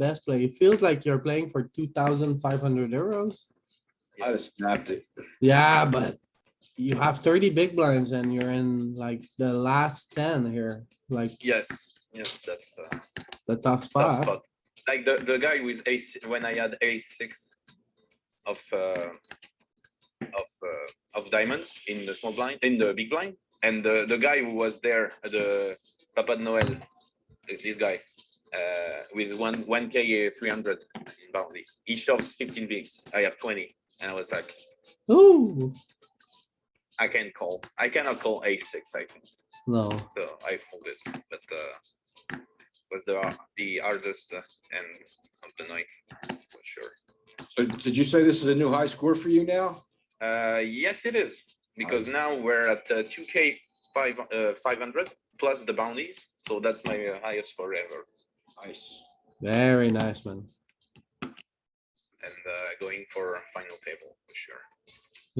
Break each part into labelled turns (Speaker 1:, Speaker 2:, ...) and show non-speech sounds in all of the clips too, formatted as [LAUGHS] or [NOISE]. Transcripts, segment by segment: Speaker 1: best play. It feels like you're playing for two thousand five hundred euros.
Speaker 2: I just snapped it.
Speaker 1: Yeah, but you have thirty big blinds and you're in like the last ten here, like
Speaker 3: Yes, yes, that's the
Speaker 1: the tough
Speaker 3: tough
Speaker 1: spot.
Speaker 3: spot. Like the, the guy with ace, when I had ace six of, uh, of, uh, of diamonds in the small blind, in the big blind. And the, the guy who was there, the Papa Noel, this guy, uh, with one, one K three hundred in bounty. He shoves fifteen bigs, I have twenty, and I was like,
Speaker 1: Ooh,
Speaker 3: I can call, I cannot call ace six, I think.
Speaker 1: no,
Speaker 3: so I folded, but uh, was the the hardest uh, end of the night for sure.
Speaker 2: So did you say this is a new high score for you now?
Speaker 3: Uh, yes, it is because now we're at uh, two K five uh, five hundred plus the bounties, so that's my uh, highest forever.
Speaker 2: Nice.
Speaker 1: very nice, man.
Speaker 3: And uh, going for final table for sure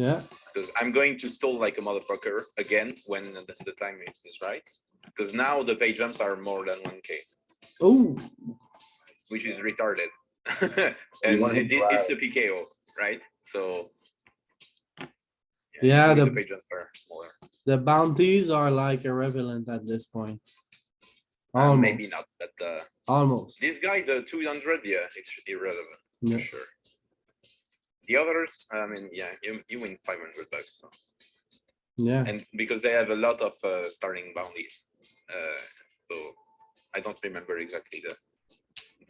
Speaker 1: Yeah,
Speaker 3: because I'm going to stall like a motherfucker again when the, the time is, is right. Because now the pay jumps are more than one K,
Speaker 1: ooh,
Speaker 3: which is retarded, and
Speaker 2: wanna
Speaker 3: it, it's the PKO, right? So
Speaker 1: Yeah,
Speaker 3: even
Speaker 1: the-
Speaker 3: pigeons are smaller.
Speaker 1: the bounties are like irrelevant at this point.
Speaker 3: Uh,
Speaker 1: Almost,
Speaker 3: maybe not, but uh,
Speaker 1: almost.
Speaker 3: this guy, the 200, yeah, it's irrelevant
Speaker 1: Yeah.
Speaker 3: for sure. The others, I mean, yeah, you, you win 500 bucks, so.
Speaker 1: Yeah,
Speaker 3: and because they have a lot of uh, starting bounties, uh, so I don't remember exactly the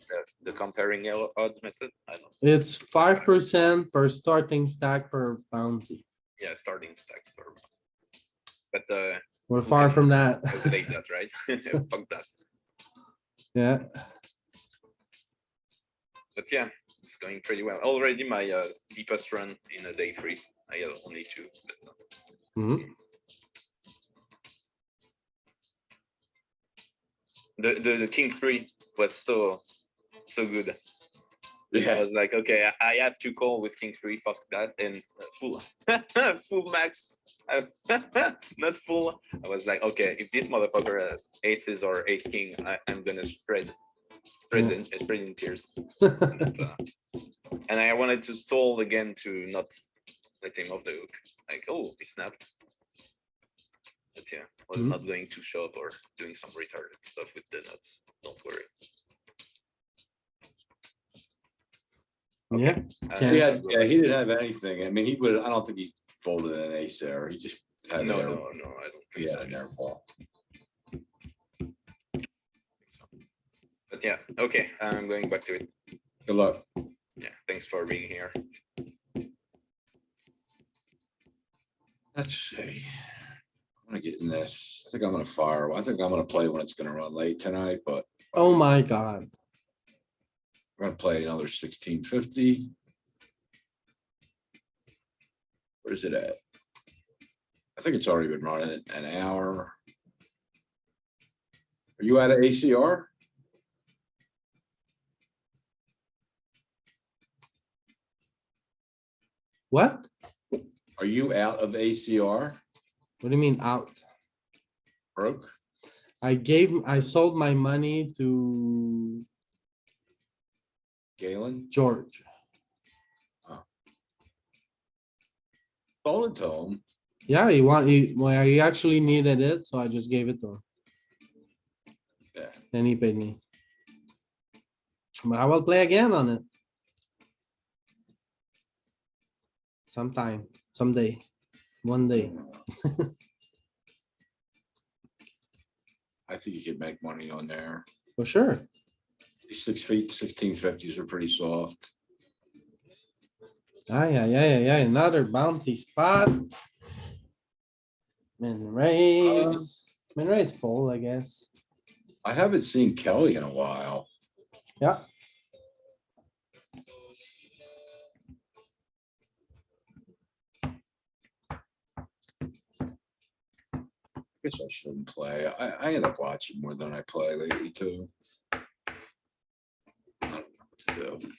Speaker 3: the, the comparing el- odds method. I don't.
Speaker 1: it's five percent per starting stack per bounty.
Speaker 3: Yeah, starting stack. Or, but uh,
Speaker 1: We're far from that.
Speaker 3: calculate that, right? Fuck that.
Speaker 1: [LAUGHS] Yeah,
Speaker 3: but yeah, it's going pretty well. Already my uh, deepest run in a day three. I had only two. But, uh,
Speaker 1: Mhm.
Speaker 3: The, the the king three was so so good. I
Speaker 2: Yeah,
Speaker 3: was like, okay, I- I have to call with king three. Fuck that, and uh, full [LAUGHS] full max, uh, [LAUGHS] not full. I was like, okay, if this motherfucker has aces or ace king, I, I'm gonna spread, spread,
Speaker 1: Yeah.
Speaker 3: in, uh, spread in
Speaker 1: [LAUGHS]
Speaker 3: tears. But, uh, and I wanted to stall again to not let him off the hook. Like, oh, he snapped. But yeah, I was
Speaker 1: Mhm.
Speaker 3: not going to shove or doing some retarded stuff with the nuts. Don't worry.
Speaker 1: yeah,
Speaker 3: Uh,
Speaker 1: Yeah.
Speaker 2: he had, yeah, he didn't have anything. I mean, he would, I don't think he folded an ace there. He just
Speaker 3: No,
Speaker 2: had.
Speaker 3: Uh, no,
Speaker 2: an
Speaker 3: no,
Speaker 2: error-
Speaker 3: I don't
Speaker 2: He
Speaker 3: think
Speaker 2: had
Speaker 3: so.
Speaker 2: an air ball.
Speaker 3: But yeah, okay, I'm going back to it.
Speaker 2: Good luck.
Speaker 3: Yeah, thanks for being here.
Speaker 2: Let's see. I'm gonna get in this. I think I'm gonna fire. I think I'm gonna play when it's gonna run late tonight, but
Speaker 1: oh my god.
Speaker 2: we're gonna play another sixteen fifty. Where's it at? I think it's already been running an hour. Are you out of ACR?
Speaker 1: What?
Speaker 2: Are you out of ACR?
Speaker 1: What do you mean out?
Speaker 2: Broke?
Speaker 1: I gave, I sold my money to
Speaker 2: Galen?
Speaker 1: George.
Speaker 2: Sold it to him.
Speaker 1: Yeah, he want, he, well, he actually needed it, so I just gave it to him.
Speaker 2: Yeah.
Speaker 1: Then he paid me. But I will play again on it. Sometime, someday, one day.
Speaker 2: I think you could make money on there.
Speaker 1: For sure.
Speaker 2: Six feet, sixteen fifties are pretty soft.
Speaker 1: Ah, yeah, yeah, yeah, yeah, another bounty spot. Min raise, min raise full, I guess.
Speaker 2: I haven't seen Kelly in a while.
Speaker 1: Yeah.
Speaker 2: Guess I shouldn't play. I, I end up watching more than I play lately too. I don't know what to do.